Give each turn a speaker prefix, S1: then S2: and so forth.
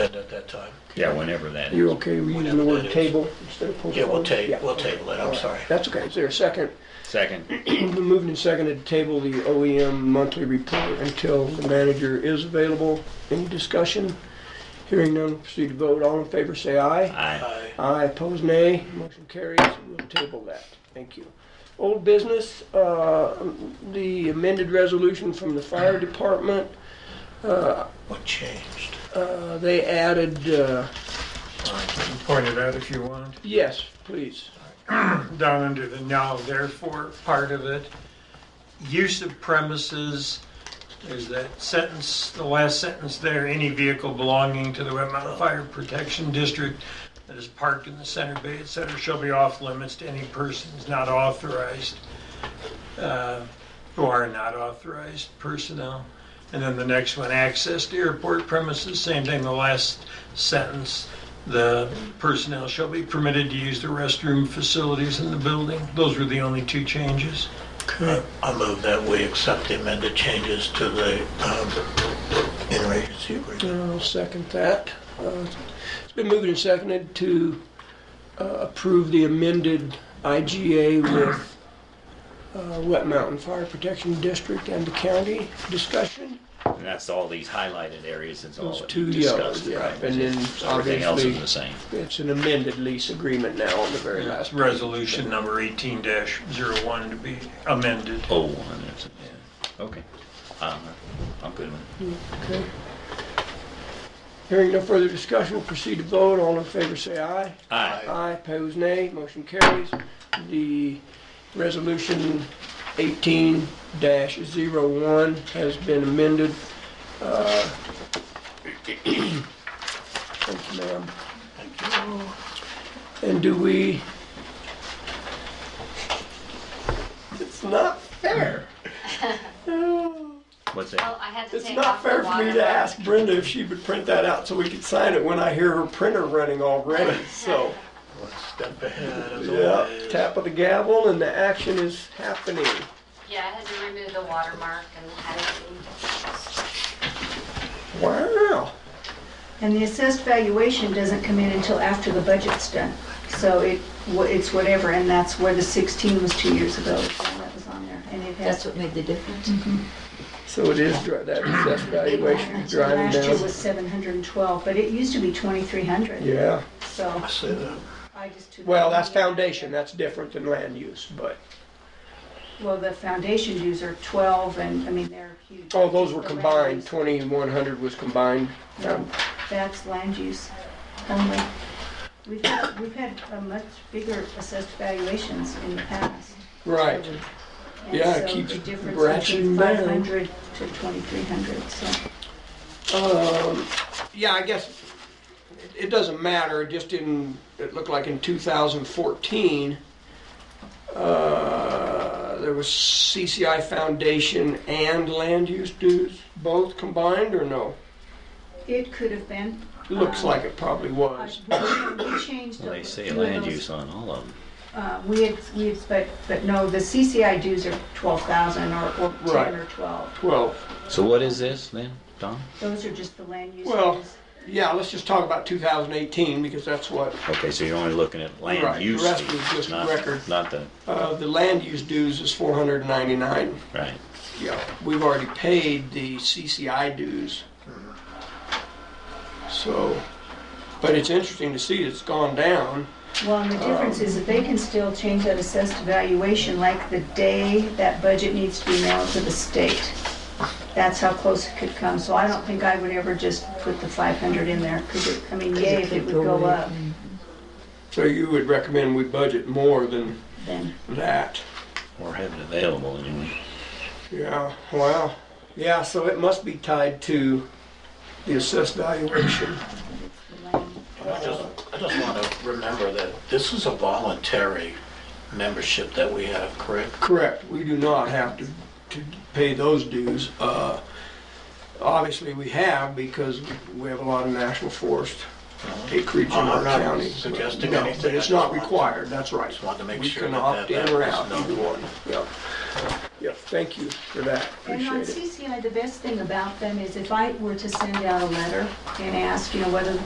S1: time.
S2: Yeah, whenever that
S3: You
S2: is.
S3: okay with using
S1: Whatever
S3: the
S1: that
S3: word
S1: is.
S3: table instead of postpone?
S1: Yeah, we'll table,
S3: Yeah.
S1: we'll table it, I'm sorry.
S3: That's okay. Is there a second?
S2: Second,
S3: Moved and seconded to table the OEM monthly report until the manager is available. Any discussion? Hearing none, proceed to vote. All in favor, say aye.
S2: aye.
S1: Aye.
S3: Aye, opposed, nay. Motion carries. We'll table that. Thank you. Old business, uh, the amended resolution from the fire department.
S1: What changed?
S3: Uh, They added, uh,
S4: I can point it out if you want.
S3: yes, please.
S4: Down under the now therefore part of it, use of premises, there's that sentence, the last sentence there, any vehicle belonging to the Wet Mountain Fire Protection District that is parked in the center bay, et cetera, shall be off limits to any persons not authorized, uh, who are not authorized personnel. And then the next one, access to airport premises, same thing, the last sentence, the personnel shall be permitted to use the restroom facilities in the building. Those were the only two changes.
S1: I I move that we accept the amended changes to the um, interagency agreement.
S3: I'll second that. Uh, It's been moved and seconded to uh, approve the amended IGA with uh, Wet Mountain Fire Protection District and the county discussion.
S2: And that's all these highlighted areas, it's all
S3: Those
S2: that
S3: two
S2: we discussed,
S3: yellows,
S2: right?
S3: yeah. And then
S2: Everything else is
S3: obviously-
S2: the same.
S3: It's an amended lease agreement now on the very last.
S4: That's resolution number 18-01 to be amended.
S2: Oh, one, that's, yeah, okay. Uh, I'm good with it.
S3: Okay. Hearing no further discussion, we'll proceed to vote. All in favor, say aye.
S2: Aye.
S3: Aye, pose nay, motion carries. The resolution eighteen dash zero one has been amended. Uh, Thank you, ma'am. Thank you. And do we? It's not fair. Oh,
S2: What's
S5: Well,
S2: that?
S5: I had to
S3: It's
S5: take
S3: not
S5: off the
S3: fair for me
S5: water.
S3: to ask Brenda if she would print that out so we could sign it when I hear her printer running already, so.
S1: One step ahead as
S3: Yeah,
S1: always.
S3: tap of the gavel and the action is happening.
S5: Yeah, I had to remove the watermark and had it.
S3: Wow.
S6: And the assessed valuation doesn't come in until after the budget's done. So it, wha- it's whatever, and that's where the 16 was two years ago, so that was on there. And it
S7: That's
S6: has,
S7: what made the difference.
S3: So it is, dri- that assessed valuation is driving
S6: last year
S3: down.
S6: was 712, but it used to be 2,300,
S3: Yeah,
S6: so
S1: I see that.
S6: I just took.
S3: well, that's foundation, that's different than land use, but,
S6: Well, the foundation dues are 12, and, I mean, they're huge.
S3: oh, those were
S6: The land
S3: combined,
S6: use-
S3: twenty-one hundred was combined.
S6: No, That's land use only. We've had, we've had uh, much bigger assessed valuations in the past.
S3: Right,
S6: And
S3: Yeah, it
S6: so
S3: keeps
S6: the difference
S3: ratcheting
S6: between
S3: down.
S6: 500 to 2,300, so.
S3: yeah, I guess it- it doesn't matter, just in, it looked like in two thousand fourteen, uh, there was CCI foundation and land use dues, both combined or no?
S6: It could have been.
S3: Looks like it probably
S6: I-
S3: was.
S6: We changed.
S2: Well, They say
S6: two of
S2: land
S6: those,
S2: use on all of them.
S6: uh, We had, we had, but, but no, the CCI dues are 12,000 or, or 10
S3: Right.
S6: or 12.
S3: Well,
S2: So what is this then, Tom?
S6: Those are just the land use.
S3: Well,
S6: dues.
S3: yeah, let's just talk about 2018 because that's what,
S2: Okay, so you're only looking at
S3: Right,
S2: land
S3: the
S2: use
S3: rest was
S2: fees,
S3: just
S2: not,
S3: record.
S2: not the,
S3: uh, the land use dues is 499.
S2: right.
S3: Yeah, we've already paid the CCI dues. So, but it's interesting to see it's gone down.
S6: Well, and the difference is that they can still change that assessed valuation like the day that budget needs to be mailed to the state. That's how close it could come, so I don't think I would ever just put the 500 in there, 'cause it, I mean, yay, if it would go up,
S3: So you would recommend we budget more than
S6: then,
S3: that?
S2: Or have it available anyway.
S3: Yeah, wow. Yeah, so it must be tied to the assessed valuation.
S1: I just, I just want to remember that this is a voluntary membership that we have, correct?
S3: Correct, we do not have to, to pay those dues. Uh, Obviously, we have because we have a lot of national forest acreage in
S1: Uh-huh. I'm
S3: our
S1: not
S3: county.
S1: suggesting
S3: No,
S1: anything.
S3: but it's not required, that's right.
S1: Just wanted to make sure
S3: We can
S1: that
S3: opt
S1: that-
S3: in or
S1: that
S3: out,
S1: was
S3: either
S1: known.
S3: one, yeah. Yeah, thank you for that,
S6: And on
S3: appreciate it.
S6: CCI, the best thing about them is if I were to send out a letter and ask, you know, whether